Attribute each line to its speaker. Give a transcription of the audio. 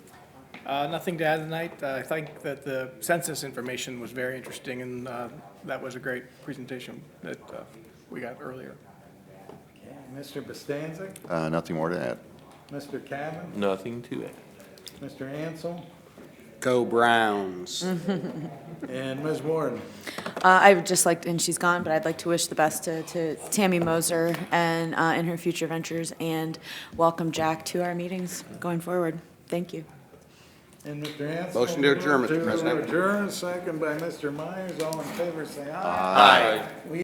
Speaker 1: Uh, Nothing to add tonight. Uh, I think that the census information was very interesting, and uh, that was a great presentation that uh, we got earlier.
Speaker 2: Okay, Mr. Bostancic,
Speaker 3: Uh, Nothing more to add.
Speaker 2: Mr. Cavan,
Speaker 4: Nothing to it.
Speaker 2: Mr. Ansel,
Speaker 5: Go Browns.
Speaker 2: and Ms. Warden.
Speaker 6: Uh, I would just like, and she's gone, but I'd like to wish the best to, to Tammy Moser and, uh, in her future ventures, and welcome Jack to our meetings going forward. Thank you.
Speaker 2: And Mr. Ansel.
Speaker 5: Motion to adjourn, Mr.
Speaker 2: To
Speaker 5: President.
Speaker 2: adjourn, second by Mr. Myers. All in favor, say aye.
Speaker 5: Aye.